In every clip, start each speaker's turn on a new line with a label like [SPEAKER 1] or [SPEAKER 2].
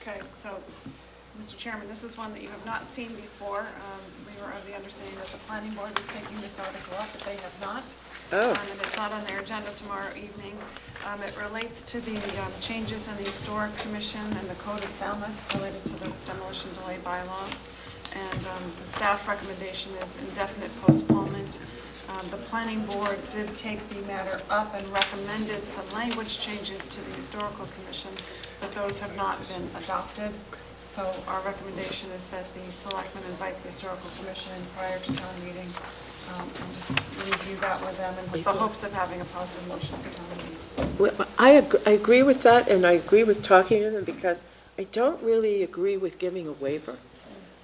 [SPEAKER 1] Okay, so, Mr. Chairman, this is one that you have not seen before. Um, We were of the understanding that the planning board was taking this article up, but they have not.
[SPEAKER 2] Oh.
[SPEAKER 1] Um, And it's not on their agenda tomorrow evening. Um, It relates to the um, changes in the historic commission and the code of Falmouth related to the demolition delay bylaw. And um, the staff recommendation is indefinite postponement. Um, The planning board did take the matter up and recommended some language changes to the historical commission, but those have not been adopted. So our recommendation is that the selectmen invite the historical commission in prior to town meeting um, and just review that with them and with the hopes of having a positive motion for town meeting.
[SPEAKER 2] Well, I, ag- I agree with that, and I agree with talking to them, because I don't really agree with giving a waiver.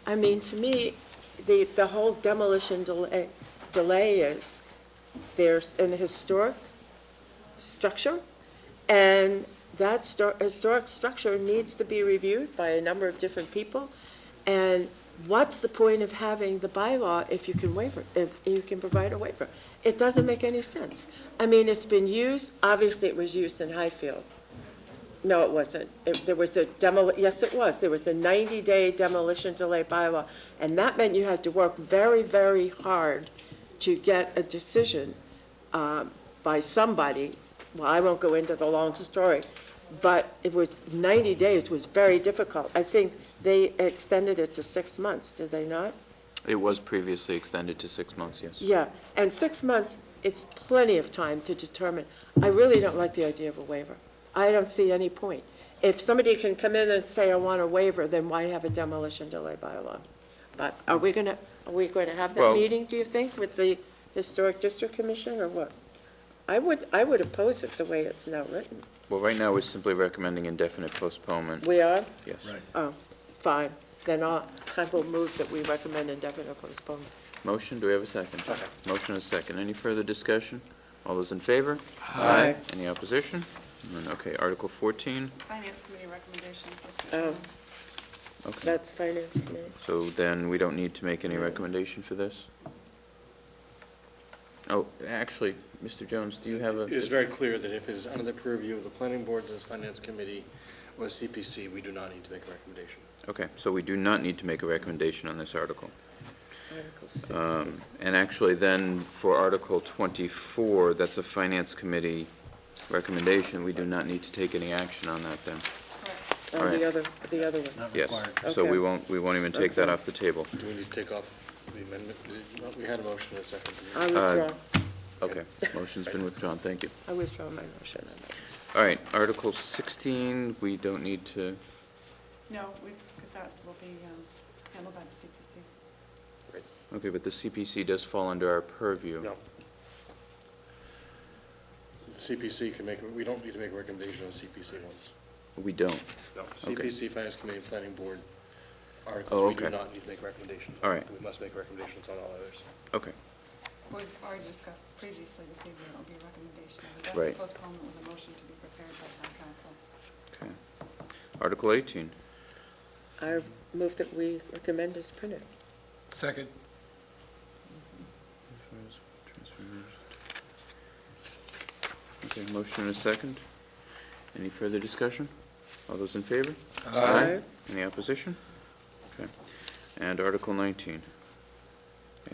[SPEAKER 2] I mean, to me, the, the whole demolition delay, delay is, there's an historic structure, and that stor- historic structure needs to be reviewed by a number of different people, and what's the point of having the bylaw if you can waiver, if you can provide a waiver? It doesn't make any sense. I mean, it's been used, obviously it was used in Highfield. No, it wasn't. It- There was a demol, yes, it was. There was a 90-day demolition delay bylaw, and that meant you had to work very, very hard to get a decision um, by somebody. Well, I won't go into the long story, but it was, 90 days was very difficult. I think they extended it to six months, did they not?
[SPEAKER 3] It was previously extended to six months, yes.
[SPEAKER 2] Yeah, and six months, it's plenty of time to determine. I really don't like the idea of a waiver. I don't see any point. If somebody can come in and say, I want a waiver, then why have a demolition delay bylaw? But are we gonna, are we going to have that
[SPEAKER 3] Well-
[SPEAKER 2] meeting, do you think, with the Historic District Commission, or what? I would, I would oppose it the way it's now written.
[SPEAKER 3] Well, right now, we're simply recommending indefinite postponement,
[SPEAKER 2] We are?
[SPEAKER 3] yes.
[SPEAKER 2] Oh, fine, then I'll, I will move that we recommend indefinite postponement.
[SPEAKER 3] Motion, do we have a second? Motion and a second. Any further discussion? All those in favor?
[SPEAKER 2] Aye.
[SPEAKER 3] Any opposition? None. Okay, Article 14,
[SPEAKER 1] Finance committee recommendation. for
[SPEAKER 2] Oh,
[SPEAKER 1] special-
[SPEAKER 3] okay.
[SPEAKER 2] that's Finance Committee.
[SPEAKER 3] So then, we don't need to make any recommendation for this? Oh, actually, Mr. Jones, do you have a?
[SPEAKER 4] It is very clear that if it is under the purview of the planning board, the finance committee, or CPC, we do not need to make a recommendation.
[SPEAKER 3] Okay, so we do not need to make a recommendation on this article.
[SPEAKER 2] Article six.
[SPEAKER 3] Um, And actually, then, for Article 24, that's a Finance Committee recommendation, we do not need to take any action on that then.
[SPEAKER 1] Correct.
[SPEAKER 2] Oh,
[SPEAKER 3] Alright.
[SPEAKER 2] the other, the other one.
[SPEAKER 3] Yes, so we
[SPEAKER 2] Okay.
[SPEAKER 3] won't, we won't even take that off the table.
[SPEAKER 4] Do we need to take off the amendment? No, We had a motion and a second.
[SPEAKER 2] I
[SPEAKER 3] Um,
[SPEAKER 2] withdraw,
[SPEAKER 3] Okay, motion's been withdrawn, thank you.
[SPEAKER 2] I withdraw my motion. on that.
[SPEAKER 3] All right, Article 16, we don't need to,
[SPEAKER 1] No, we've, that will be um, handled by the CPC.
[SPEAKER 3] okay, but the CPC does fall under our purview.
[SPEAKER 4] No. The CPC can make, we don't need to make a recommendation on CPC ones.
[SPEAKER 3] We don't.
[SPEAKER 4] No.
[SPEAKER 3] Okay.
[SPEAKER 4] CPC, finance committee, planning board articles, we do
[SPEAKER 3] Oh, okay.
[SPEAKER 4] not need to make recommendations.
[SPEAKER 3] All right.
[SPEAKER 4] We must make recommendations on all others.
[SPEAKER 3] Okay,
[SPEAKER 1] We've already discussed previously this evening, it'll be a recommendation of a
[SPEAKER 3] Right.
[SPEAKER 1] definite postponement with a motion to be prepared by town council.
[SPEAKER 3] okay. Article 18,
[SPEAKER 2] I move that we recommend as printed.
[SPEAKER 5] Second.
[SPEAKER 3] okay, motion and a second. Any further discussion? All those in favor?
[SPEAKER 2] Aye.
[SPEAKER 3] Any opposition? Okay. And Article 19,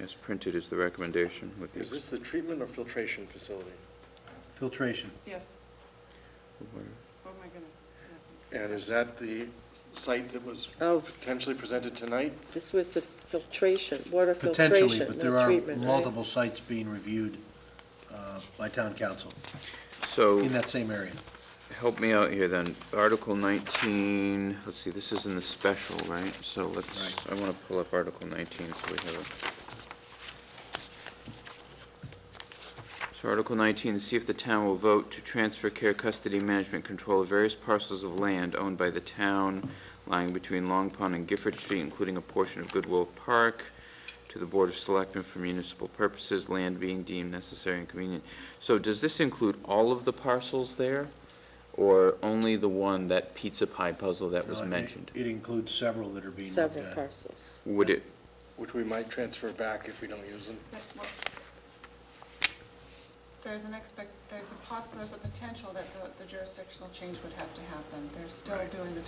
[SPEAKER 3] as printed is the recommendation with the...
[SPEAKER 4] Is this the treatment or filtration facility?
[SPEAKER 5] Filtration.
[SPEAKER 1] Yes,
[SPEAKER 3] Water.
[SPEAKER 1] oh my goodness, yes.
[SPEAKER 4] And is that the site that was
[SPEAKER 2] Oh,
[SPEAKER 4] potentially presented tonight?
[SPEAKER 2] this was the filtration, water
[SPEAKER 5] Potentially,
[SPEAKER 2] filtration,
[SPEAKER 5] but there
[SPEAKER 2] not
[SPEAKER 5] are
[SPEAKER 2] treatment, right?
[SPEAKER 5] multiple sites being reviewed uh, by town council
[SPEAKER 3] So,
[SPEAKER 5] in that same area.
[SPEAKER 3] help me out here then. Article 19, let's see, this is in the special, right? So let's, I want to pull up Article 19 so we have it. So Article 19, see if the town will vote to transfer care, custody, management, control of various parcels of land owned by the town lying between Long Pond and Gifford Street, including a portion of Goodwill Park, to the Board of Selectmen for municipal purposes, land being deemed necessary and convenient. So does this include all of the parcels there, or only the one, that pizza pie puzzle that was
[SPEAKER 5] Uh, it-
[SPEAKER 3] mentioned?
[SPEAKER 5] It includes several that are being looked
[SPEAKER 2] Several
[SPEAKER 5] at.
[SPEAKER 2] parcels.
[SPEAKER 3] Would it,
[SPEAKER 4] which we might transfer back if we don't use them.
[SPEAKER 1] But what- There's an expect, there's a poss, there's a potential that the- the jurisdictional change would have to happen. They're still doing the